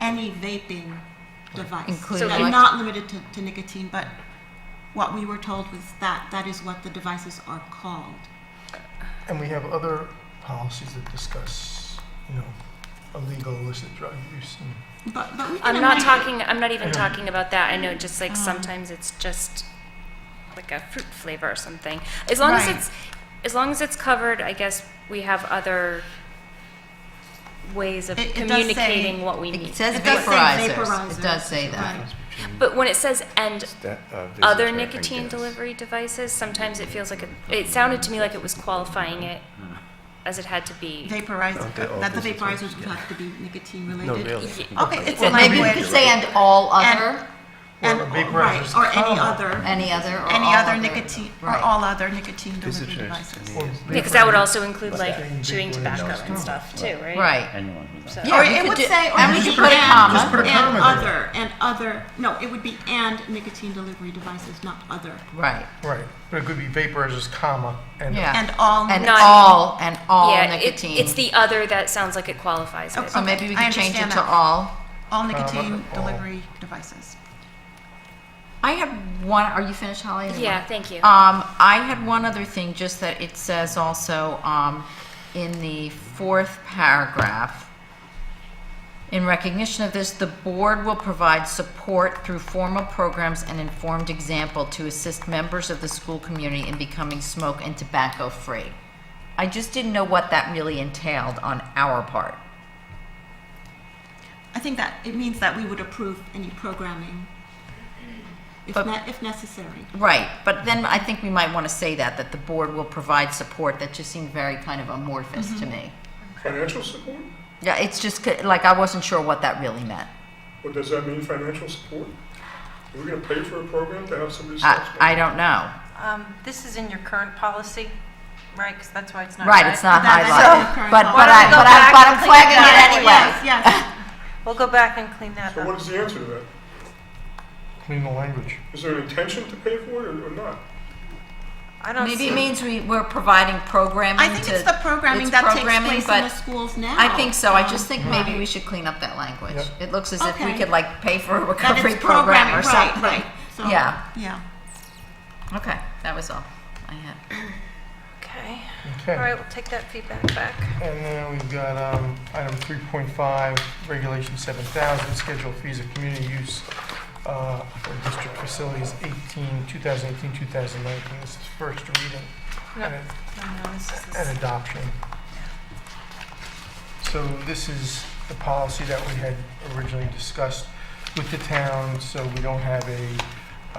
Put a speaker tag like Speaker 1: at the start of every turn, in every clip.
Speaker 1: any vaping device.
Speaker 2: Including
Speaker 1: And
Speaker 2: elec-
Speaker 1: not limited to, to nicotine, but what we were told was that, that is what the devices are called.
Speaker 3: And we have other policies that discuss, you know, illegal illicit drug use. And
Speaker 1: But, but we can
Speaker 2: Um,
Speaker 4: I'm not
Speaker 1: amend-
Speaker 4: talking, I'm not even
Speaker 3: Yeah.
Speaker 4: talking about that. I know just like sometimes it's just like a fruit flavor or something. As long as
Speaker 1: Right.
Speaker 4: it's, as long as it's covered, I guess we have other ways of
Speaker 1: It- it does say-
Speaker 4: communicating what we need.
Speaker 2: It says
Speaker 1: It does say
Speaker 2: vaporizers.
Speaker 1: vaporizers,
Speaker 2: It does say that.
Speaker 1: right.
Speaker 4: But when it says and
Speaker 5: That, uh, this
Speaker 4: other
Speaker 5: is what I think it
Speaker 4: nicotine
Speaker 5: is.
Speaker 4: delivery devices, sometimes it feels like, it it sounded to me like it was qualifying it as it had to be.
Speaker 1: Vaporizer,
Speaker 5: Okay, all
Speaker 1: that the
Speaker 5: business
Speaker 1: vaporizers
Speaker 5: ones,
Speaker 1: would
Speaker 5: yeah.
Speaker 1: have to be nicotine
Speaker 5: No,
Speaker 1: related.
Speaker 5: really.
Speaker 1: Okay, it's
Speaker 2: So
Speaker 1: a
Speaker 2: maybe we could
Speaker 1: language.
Speaker 2: say and all
Speaker 1: And-
Speaker 2: other,
Speaker 1: And,
Speaker 3: Well, the vaporizers
Speaker 1: right, or any
Speaker 3: come.
Speaker 1: other,
Speaker 2: any other, or
Speaker 1: any
Speaker 2: all
Speaker 1: other nicotine, or
Speaker 2: Right.
Speaker 1: all other nicotine
Speaker 5: This is
Speaker 1: delivery
Speaker 5: just to
Speaker 1: devices.
Speaker 5: me.
Speaker 4: Because that would also include
Speaker 5: What's
Speaker 4: like
Speaker 3: that?
Speaker 4: chewing tobacco and stuff too, right?
Speaker 2: Right.
Speaker 6: Anyone who's
Speaker 4: So-
Speaker 6: not.
Speaker 2: Yeah,
Speaker 1: Or
Speaker 2: we
Speaker 1: it
Speaker 2: could
Speaker 1: would
Speaker 2: do-
Speaker 1: say, or
Speaker 2: and we
Speaker 1: and,
Speaker 2: could put a comma.
Speaker 3: put a
Speaker 1: and
Speaker 3: comma there.
Speaker 1: other, and other, no, it would be and nicotine delivery devices, not other.
Speaker 2: Right.
Speaker 3: Right, but it could be vaporizers, comma, and
Speaker 2: Yeah.
Speaker 1: And all.
Speaker 2: And
Speaker 4: Not-
Speaker 2: all, and all
Speaker 4: Yeah, it-
Speaker 2: nicotine.
Speaker 4: it's the other that sounds like it qualifies it.
Speaker 2: So maybe we
Speaker 1: I
Speaker 2: could change it
Speaker 1: understand
Speaker 2: to
Speaker 1: that.
Speaker 2: all.
Speaker 1: All nicotine
Speaker 3: all.
Speaker 1: delivery devices.
Speaker 2: I had one, are you finished, Holly?
Speaker 4: Yeah, thank you.
Speaker 2: Um, I had one other thing, just that it says also, um, in the fourth paragraph, in recognition of this, the board will provide support through formal programs and informed example to assist members of the school community in becoming smoke and tobacco free. I just didn't know what that really entailed on our part.
Speaker 1: I think that, it means that we would approve any programming if
Speaker 2: But-
Speaker 1: ne- if necessary.
Speaker 2: Right, but then I think we might want to say that, that the board will provide support. That just seemed very kind of amorphous to me.
Speaker 7: Financial support?
Speaker 2: Yeah, it's just c- like I wasn't sure what that really meant.
Speaker 7: What does that mean, financial support? Are we gonna pay for a program to have somebody stop
Speaker 2: I,
Speaker 7: smoking?
Speaker 2: I don't know.
Speaker 8: Um, This is in your current policy, right? Because that's why it's not.
Speaker 2: Right, it's not
Speaker 1: That's
Speaker 2: highlighted,
Speaker 1: the current
Speaker 2: but,
Speaker 1: policy.
Speaker 2: but I,
Speaker 8: Why don't we go
Speaker 2: but I,
Speaker 8: back
Speaker 2: but
Speaker 8: and
Speaker 2: I'm
Speaker 8: clean it
Speaker 2: flagging
Speaker 8: up?
Speaker 2: it anyway.
Speaker 1: Yes, yes.
Speaker 8: We'll go back and clean that
Speaker 7: So what
Speaker 8: up.
Speaker 7: is the answer to that?
Speaker 3: clean the language.
Speaker 7: Is there an intention to pay for it or or not?
Speaker 8: I don't
Speaker 2: Maybe
Speaker 8: see-
Speaker 2: it means we, we're providing programming
Speaker 1: I think
Speaker 2: to-
Speaker 1: it's the programming
Speaker 2: it's
Speaker 1: that takes
Speaker 2: programming,
Speaker 1: place in
Speaker 2: but
Speaker 1: the schools now.
Speaker 2: I think so, I
Speaker 1: Um,
Speaker 2: just think maybe
Speaker 1: right.
Speaker 2: we should clean up that language.
Speaker 3: Yeah.
Speaker 2: It looks as if we
Speaker 1: Okay.
Speaker 2: could like pay for a
Speaker 1: That
Speaker 2: recovery
Speaker 1: it's
Speaker 2: program
Speaker 1: programming,
Speaker 2: or
Speaker 1: right,
Speaker 2: something.
Speaker 1: right. So,
Speaker 2: Yeah.
Speaker 1: Yeah.
Speaker 2: Okay, that was all I had.
Speaker 8: Okay. All
Speaker 3: Okay.
Speaker 8: right, we'll take that feedback back.
Speaker 3: And then we've got um, item 3.5, Regulation 7000, Schedule Fees of Community Use uh, for District Facilities 18, 2018, 2019. This is first reading
Speaker 8: No,
Speaker 3: and it-
Speaker 8: no, no, this is-
Speaker 3: and adoption. So this is the policy that we had originally discussed with the town, so we don't have a,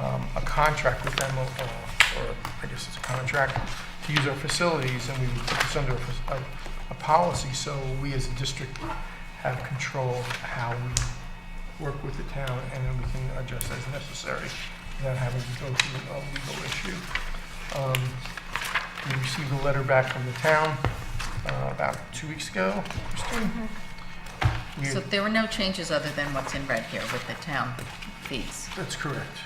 Speaker 3: um, a contract with them, uh, or I guess it's a contract, to use our facilities, and we put this under a, fac- a- a policy, so we as a district have control of how we work with the town, and then we can adjust as necessary without having to go through a legal issue. Um, we received a letter back from the town uh, about two weeks ago. Christine. We-
Speaker 2: So there were no changes other than what's in red here with the town fees.
Speaker 3: That's correct.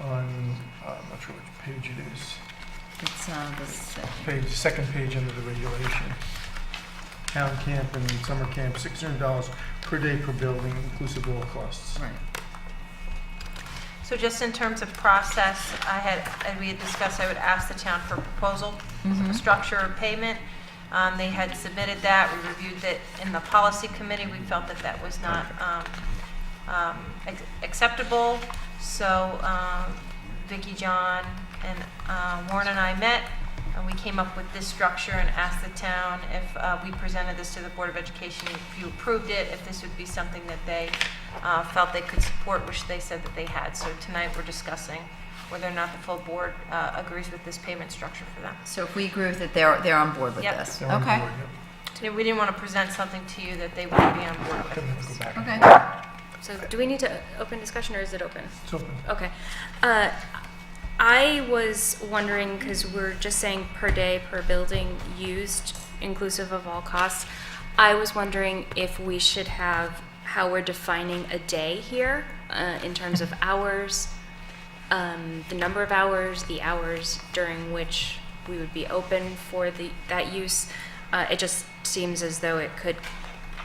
Speaker 3: On, uh, I'm not sure which page it is,
Speaker 2: It's, uh, the second.
Speaker 3: page, second page under the regulation. Town camp and summer camp, $600 per day per building, inclusive of all costs.
Speaker 2: right.
Speaker 8: So just in terms of process, I had, and we had discussed, I would ask the town for a proposal,
Speaker 2: Mm-hmm.
Speaker 8: structure of payment. Um, They had submitted that, we reviewed that in the policy committee, we felt that that was not um, um, ac- acceptable. So um, Vicky, John, and uh, Warren and I met, and we came up with this structure and asked the town if uh, we presented this to the Board of Education, if you approved it, if this would be something that they uh, felt they could support, which they said that they had. So tonight, we're discussing whether or not the full board uh, agrees with this payment structure for them.
Speaker 2: So if we agree with it, they're, they're on board with
Speaker 8: Yep.
Speaker 2: this?
Speaker 3: They're on
Speaker 2: Okay,
Speaker 3: board, yep.
Speaker 8: You know, We didn't want to present something to you that they wouldn't be on board with.
Speaker 3: Okay, we'll go back.
Speaker 2: okay.
Speaker 4: So do we need to open discussion or is it open?
Speaker 3: It's open.
Speaker 4: Okay. Uh, I was wondering, because we're just saying per day, per building used, inclusive of all costs. I was wondering if we should have, how we're defining a day here, uh, in terms of hours, um, the number of hours, the hours during which we would be open for the, that use. Uh, it just seems as though it could